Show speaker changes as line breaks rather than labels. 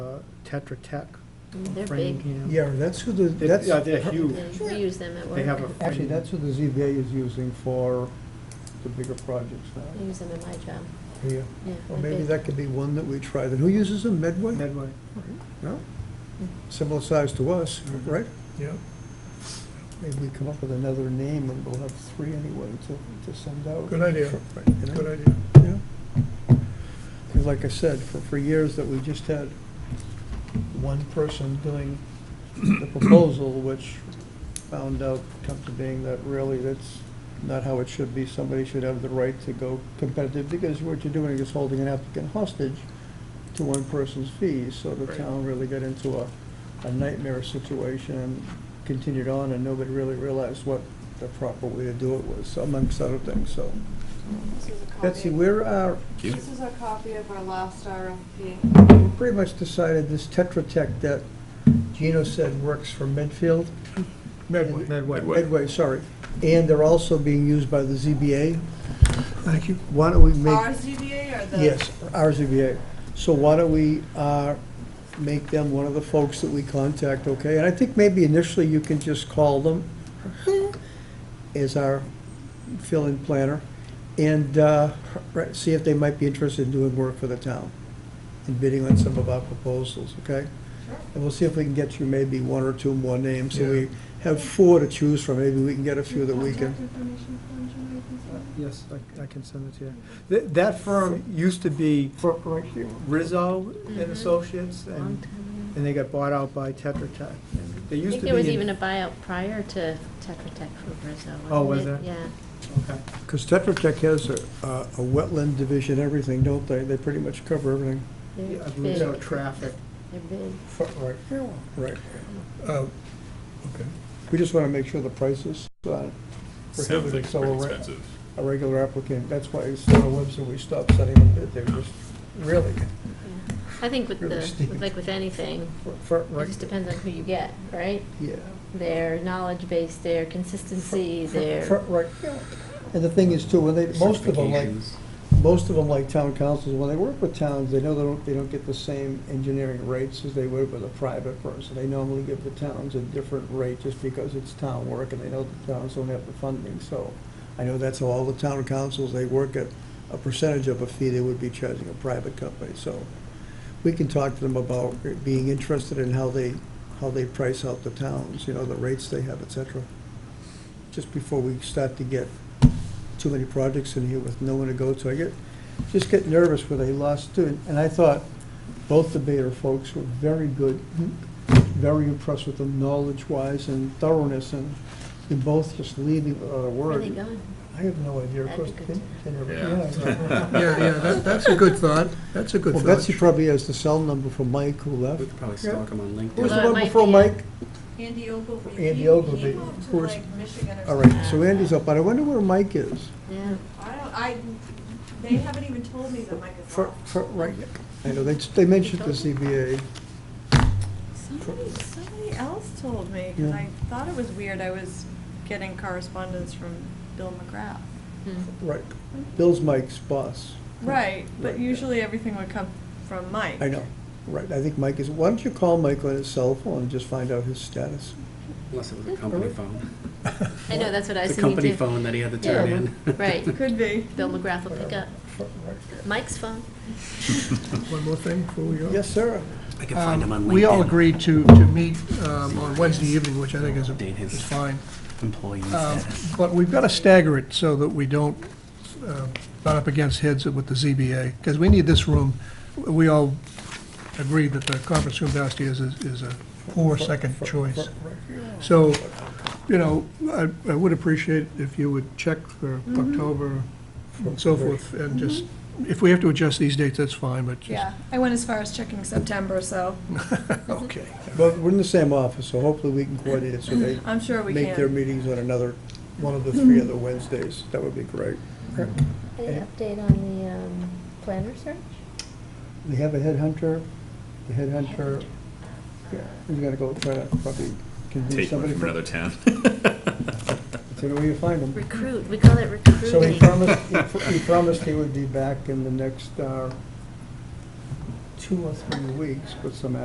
Tetra Tech.
Mm, They're big.
Framingham.
Yeah, that's who the,
They-
that's,
yeah, They're huge.
They- We use them at work.
They have a-
actually, that's who the ZBA is using for the bigger projects
Mm.
I use them at my job,
now. Yeah.
yeah.
Well,
a
maybe
big-
that could be one that we try, then who uses them, Medway?
Medway.
No?
Mm.
Similar size to us,
Mm-hmm.
right?
Yeah.
Maybe we come up with another name and we'll have three anyway to, to send out.
Good idea.
Right, you know?
Good idea.
Yeah. 'Cause like I said, for, for years that we just had one person doing the proposal, which found out, come to being that really that's not how it should be. Somebody should have the right to go competitive, because what you're doing is holding an applicant hostage to one person's fees. So the
Right.
town really got into a, a nightmare situation and continued on, and nobody really realized what the proper way to do it was, amongst other things, so.
This is a copy.
Betsy, we're, uh,
This is a copy of our last RFP.
we pretty much decided this Tetra Tech that Gino said works for Medfield.
Medway.
Medway.
Medway.
Medway, sorry. And they're also being used by the ZBA.
Thank you.
Why don't we make?
Our ZBA or the?
Yes, RZBA. So why don't we uh, make them one of the folks that we contact, okay? And I think maybe initially you can just call them as our fill-in planner and uh, right, see if they might be interested in doing work for the town and bidding on some of our proposals, okay?
Sure.
And we'll see if we can get you maybe one or two more names, so
Yeah.
we have four to choose from. Maybe we can get a few that we can.
Contact information form, Jim, I can
Uh,
send it.
Yes, I, I can send it to you. That, that firm used to be
Right here.
Rizzo
Mhm.
and Associates,
Long
and,
time
and they got bought out by Tetra Tech. And They
ago. I
used
think
to be.
there was
in-
even a buyout prior to Tetra Tech from Brazil.
Oh,
wasn't
was
it? Yeah.
Okay.
Because Tetra Tech has a, a a wetland division, everything, don't they? They pretty much cover everything.
Yeah,
They're
I believe so,
big.
traffic.
They're big.
Right. Right.
Uh, Okay.
We just want to make sure the prices, uh,
Sounds like
Prohibited,
it's pretty
so-
expensive.
a regular applicant, that's why it's not a Webster, we stopped sending them, bid. they were just, really,
Yeah. I think with
Really
the,
steep.
like with anything,
for- for,
it
right,
just depends on who you get, right?
yeah.
Their knowledge base, their consistency, their.
For- Right, yeah. And the thing is too, when they, most of them like,
Certifications.
most of them like town councils, when they work with towns, they know they don't, they don't get the same engineering rates as they would with a private person. They normally give the towns a different rate just because it's town work and they know the towns don't have the funding, so. I know that's how all the town councils, they work at a percentage of a fee they would be charging a private company, so. We can talk to them about being interested in how they, how they price out the towns, you know, the rates they have, et cetera. Just before we start to get too many projects in here with no one to go to. I get, just get nervous with a lost student. And I thought both the Bayer folks were very good, very impressed with them knowledge-wise and thoroughness, and they're both just leaving without a
Where are
word.
they going?
I have no idea. Of
That'd
course,
be
they-
good
they never-
Yeah.
yeah.
Yeah, yeah, that, that's a good thought. That's a good
Well,
thought.
Betsy probably has the cell number for Mike who left.
We could probably
Yeah.
stalk him on LinkedIn.
Who was the
Although it
one
might
before
be a-
Mike?
Andy Ogilvy. He-
Andy Ogilvy,
He moved
who
to
was-
like Michigan or something.
All right,
Uh,
so Andy's up, but I wonder where Mike is.
Yeah.
I don't, I, they haven't even told me that Mike is
For,
off.
for, right, I know, they, they mentioned the CBA.
Somebody, somebody else told me, because
Yeah.
I thought it was weird, I was getting correspondence from Bill McGrath.
Hmm.
Right. Bill's Mike's boss.
Right, but
Right, yeah.
usually everything would come from Mike.
I know, right, I think Mike is, why don't you call Mike on his cell phone and just find out his status?
Unless it was a company phone.
I know, that's what I was
It's
thinking
a company
too.
phone that he had to turn
Yeah.
in.
Right.
Could be.
Bill McGrath will pick up Mike's phone.
One more thing before we go.
Yes, sir.
I can find him on
Um,
LinkedIn.
We all agreed to, to meet um, on Wednesday evening, which I think is,
Date his-
is fine.
Employee
Um,
status.
But we've got to stagger it so that we don't uh, butt up against heads with the ZBA, because we need this room. We all agree that the conference room downstairs is is a poor second choice. So, you know, I I would appreciate if you would check for October and so forth, and just, if we have to adjust these dates, that's fine, but just,
Yeah, I went as far as checking September, so
okay.
But we're in the same office, so hopefully we can coordinate it so they
I'm sure we
make their
can.
meetings on another, one of the three other Wednesdays, that would be great.
Any update on the um, planner search?
We have a headhunter, the headhunter, yeah, he's gonna go try to probably convince
Take one
somebody.
from another town.
um,
Take where you find him.
Recruit, we call it recruiting.
So he promised, he pr- he promised he would be back in the next, uh, two or three weeks with some